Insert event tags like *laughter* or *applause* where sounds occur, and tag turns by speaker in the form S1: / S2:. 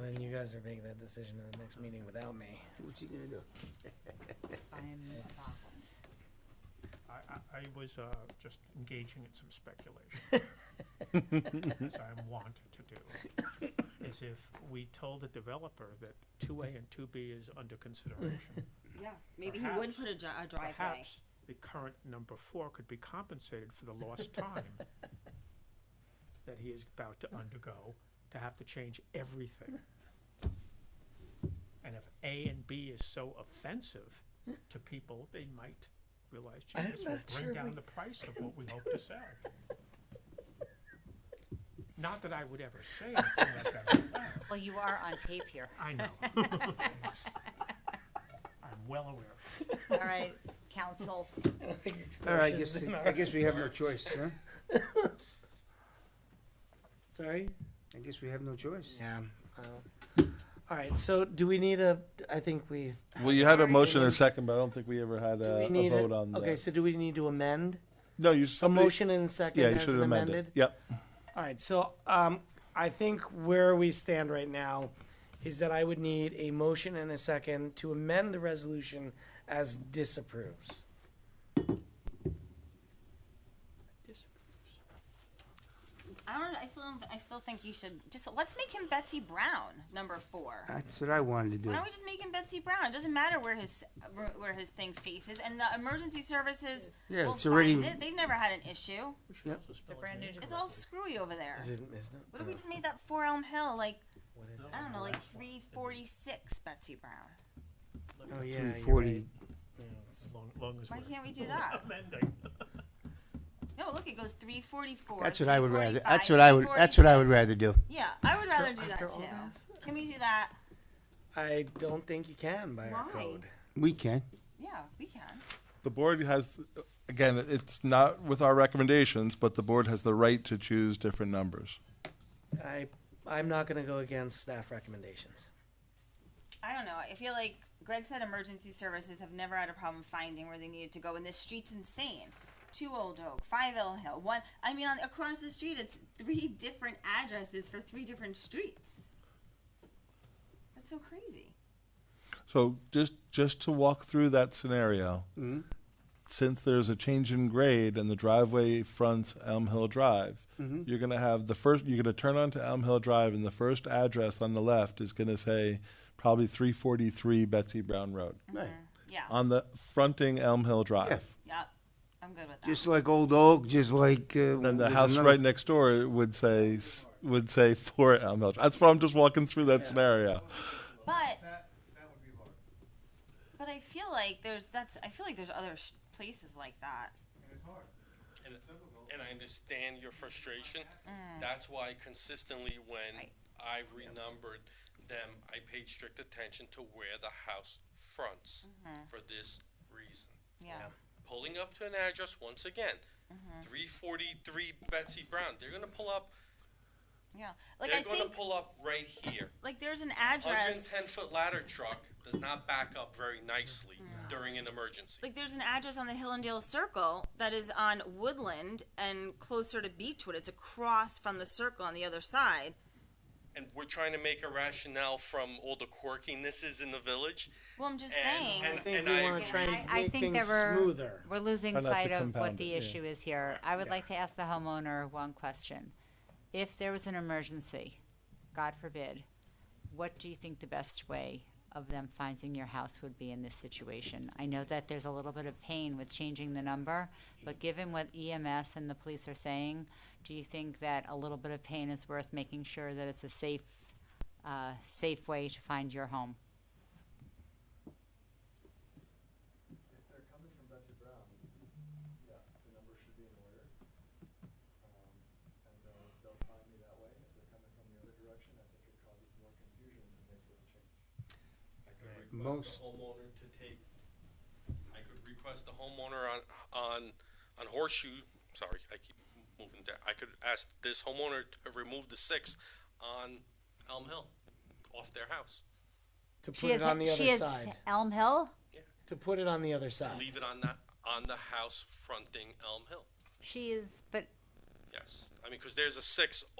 S1: then you guys are making that decision in the next meeting without me.
S2: What's he gonna do?
S3: I'm
S1: It's-
S4: I, I, I was, uh, just engaging in some
S1: *laughs*
S4: speculation. As I am wont to do, is if we told the developer that two
S1: *laughs*
S4: A and two B is under consideration.
S3: Yes, maybe he would
S4: Perhaps-
S3: put a dri- a driveway.
S4: Perhaps the current number four could be compensated for the lost time that he is about to undergo to have to change everything. And if A and B is so offensive to people, they might realize, gee,
S1: I'm
S4: this will
S1: not sure
S4: bring
S1: we-
S4: down the price of what we hope to sell. Not that I would ever say anything like that. out loud.
S5: Well, you are on tape here.
S4: I know. I'm well aware. of it.
S5: All right, council.
S2: All right, I guess, I guess we have no choice, huh?
S1: Sorry?
S2: I guess we have no choice.
S1: Yeah. All right, so do we need a, I think we.
S6: Well, you had a
S1: Alright,
S6: motion and a
S1: then-
S6: second, but I don't think we ever had
S1: do we
S6: a, a
S1: need
S6: vote on
S1: Okay,
S6: that.
S1: so do we need to amend?
S6: No, you,
S1: A
S6: somebody,
S1: motion and a second
S6: yeah, you
S1: as
S6: should have
S1: an
S6: amended.
S1: amended?
S6: Yep,
S1: All right, so, um, I think where we stand right now is that I would need a motion and a second to amend the resolution as disapproves.
S3: I don't, I still, I still think you should, just, let's make him Betsy Brown, number four.
S2: That's what I wanted to do.
S3: Why don't we just make him Betsy Brown? It doesn't matter where his, where his thing faces, and the emergency services
S2: Yeah,
S3: will
S2: it's already-
S3: find it. They've never had an issue.
S5: The brand new.
S3: It's all screwy over there.
S1: Is it, is it? Oh,
S3: What if we just made that Four Elm Hill, like,
S1: What is it?
S3: I don't know, like three forty-six Betsy Brown?
S1: Oh, yeah,
S2: Three
S1: you're
S2: forty,
S1: right. Yeah, it's-
S4: Long, long as
S3: Why
S4: we're
S3: can't we do that?
S4: *laughs* amending.
S3: No, look, it goes three forty-four.
S2: that's what I would rather, that's what I would, that's what I would rather do.
S3: Yeah, I would rather do that
S1: after all this?
S3: too. Can we do that?
S1: I don't think you can by our
S3: Why?
S1: code.
S2: We can.
S3: Yeah, we can.
S6: the board has, again, it's not with our recommendations, but the board has the right to choose different numbers.
S1: I, I'm not gonna go against staff recommendations.
S3: I don't know. I feel like Greg said emergency services have never had a problem finding where they needed to go, and this street's insane. Two Old Oak, Five Elm Hill, one. I mean, on, across the street, it's three *laughs* different addresses for three different streets. That's so crazy.
S6: So just, just to walk through that scenario,
S1: Mm-hmm.
S6: since there's a change in grade and the driveway fronts Elm Hill Drive,
S1: Mm-hmm.
S6: you're gonna have the first, you're gonna turn onto Elm Hill Drive and the first address on the left is gonna say probably three forty-three Betsy Brown Road.
S2: Right.
S3: Yeah.
S6: on the fronting Elm Hill
S2: Yeah.
S6: Drive.
S3: yep. I'm good with that.
S2: Just like Old Oak, just like, uh.
S6: Then the
S2: there's
S6: house
S2: another-
S6: right next door would say s- would say for Elm Hill. That's why I'm just walking through that scenario.
S3: but that, that would be hard. But I feel like there's that's. I feel like there's other sh- places like that.
S7: And, and I understand your frustration. That's why consistently when
S3: Mm. Right.
S7: I renumbered them, I paid strict attention to where the house fronts
S3: Mm-hmm.
S7: for this reason.
S3: yeah.
S7: Pulling up to an address once again,
S3: Mm-hmm.
S7: three forty-three Betsy Brown, they're gonna pull up,
S3: Yeah, like I
S7: they're gonna
S3: think
S7: pull up right here.
S3: like there's an
S7: Hundred and
S3: address.
S7: ten foot ladder truck does not back up very nicely
S3: Mm-hmm.
S7: during an emergency.
S3: Like there's an address on the Hillendale Circle that is on Woodland and closer to Beechwood. It's across from the circle on the other side.
S7: And we're trying to make a rationale from all the quirkinesses in the village.
S3: Well, I'm just
S7: And-
S3: saying.
S7: and-
S1: I think
S7: I
S1: we wanna
S7: agree.
S1: try
S5: I-
S1: and
S5: I
S1: make
S5: think
S1: things
S5: there were-
S1: smoother.
S5: We're losing
S6: Try not to
S5: sight of what
S6: compound
S5: the
S6: it, yeah.
S5: issue is here. I would like to ask the homeowner one question. If there was an emergency, God forbid, what do you think the best way of them finding your house would be in this situation? I know that there's a little bit of pain with changing the number, but given what EMS and the police are saying, do you think that a little bit of pain is worth making sure that it's a safe, uh, safe way to find your home?
S8: If they're coming from Betsy Brown, yeah, the number should be in order. Um, and they'll, they'll find me that way. If they're coming from the other direction, I think it causes more confusion than maybe it's changed.
S7: I could request
S2: Most-
S7: the homeowner to take, I could request the homeowner on, on, on Horseshoe, sorry, I keep moving down. I could ask this homeowner to remove the six on Elm Hill, off their house.
S1: To
S5: She
S1: put it
S5: has-
S1: on the
S5: she
S1: other
S5: has
S1: side.
S5: Elm Hill?
S1: To put it on the other side.
S7: Leave it on the, on the house fronting Elm Hill,
S5: She is, but
S7: yes. I mean, cause there's a six